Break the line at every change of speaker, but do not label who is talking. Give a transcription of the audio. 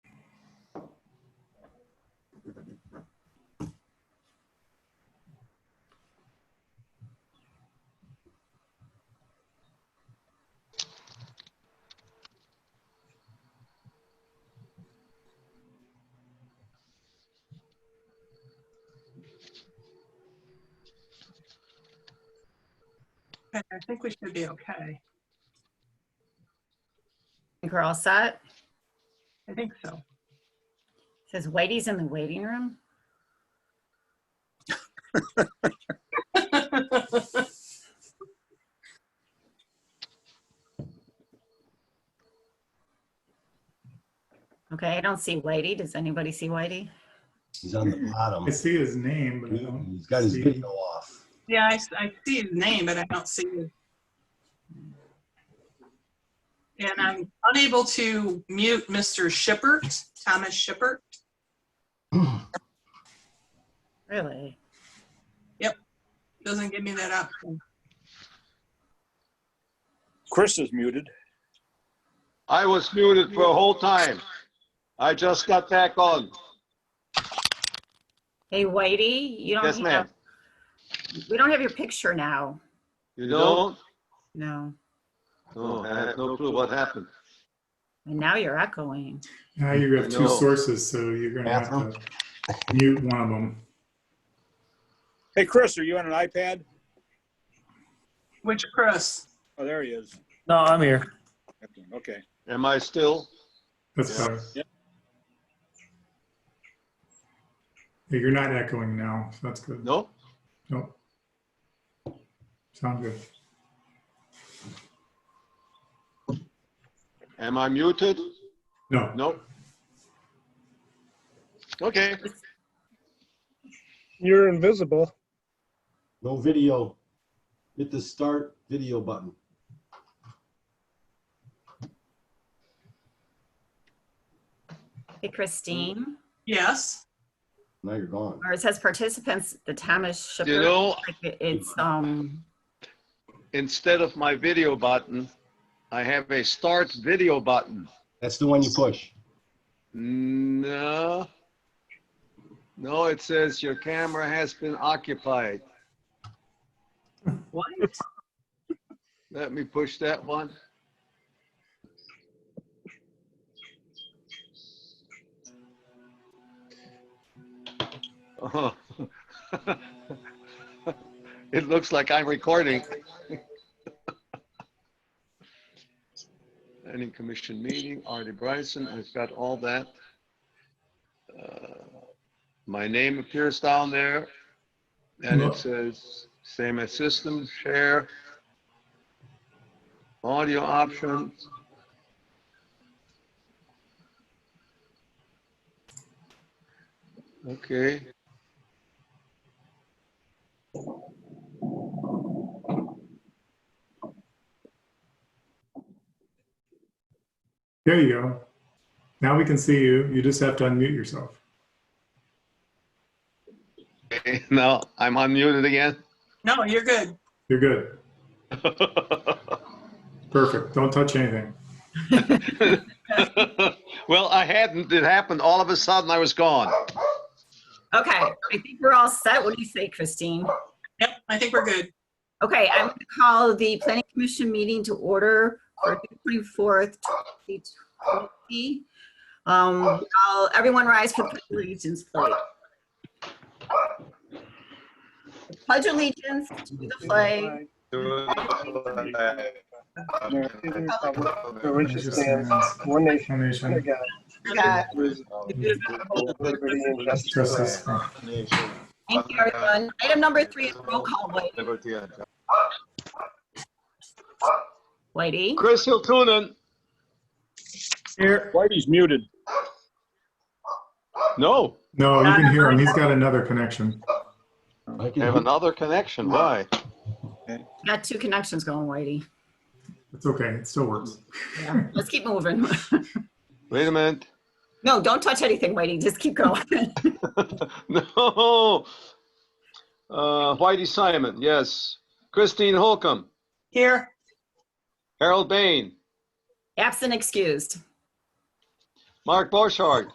Okay, I think we should be okay.
think we're all set.
I think so.
Says Whitey's in the waiting room. Okay, I don't see Whitey. Does anybody see Whitey?
He's on the bottom.
I see his name, but I don't.
He's got his
see-
video off.
Yeah, I, s- I see his name, but I don't see his. And I'm unable to mute Mr. Shippert, Thomas Shippert.
Really?
Doesn't give me that option.
Chris is muted.
I was muted for a whole time. I just got back on.
Hey, Whitey, you don't
Yes, ma'am.
have, we don't have your picture now.
You don't?
No.
No, Oh, I have no clue what happened.
And now you're echoing.
Now you have two
No.
sources, so you're gonna have
Bathroom.
to mute one of them.
Hey, Chris, are you on an iPad?
Which Chris?
Oh, there he is.
No, I'm here.
Okay.
Am I still?
That's
Yeah.
better. Yeah, You're not echoing now, so that's good.
No?
Nope. Sound good.
Am I muted?
No,
No. Okay.
You're invisible.
No video. Hit the start video button.
Hey, Christine,
Mm.
Yes.
Now you're gone.
or it says participants, the Thomas
You
Shipper.
know,
like, It's, um,
instead of my video button, I have a start video button.
That's the one you push.
No. No, it says your camera has been occupied.
What?
Let me push that one. Oh. It looks like I'm recording. Any commission meeting, Artie Bryson, I've got all that. Uh, My name appears down there. And
No.
it says, same as system, share, audio options. Okay.
there you go. Now we can see you. You just have to unmute yourself.
Okay, Now I'm unmuted again.
No, you're good.
You're good. Perfect. Don't touch anything.
well, I hadn't. It happened all of a sudden. I was gone.
okay, I think we're all set. What do you say, Christine?
Yep, I think we're good.
Okay, I'm going to call the planning commission meeting to order for June 24th, 2020. Um, I'll- Everyone rise for the pledge of allegiance, please. Pledge allegiance to the flag
One nation,
One
under
nation.
God,
of God.
liberty and justice.
Trust us.
Thank you, everyone. Item number three is roll call, White- Whitey.
Chris Hiltunen.
Here.
Whitey's muted.
No,
No, you can hear him. He's got another connection.
I
I
can
have another connection. Why?
Got two connections going, Whitey.
It's okay. It still works.
Yeah, Let's keep moving.
Wait a minute.
No, don't touch anything, Whitey. Just keep going.
no. Uh, Whitey Simon. Yes. Christine Holcomb.
Here.
Harold Bain.
Absent excused.
Mark Borchardt.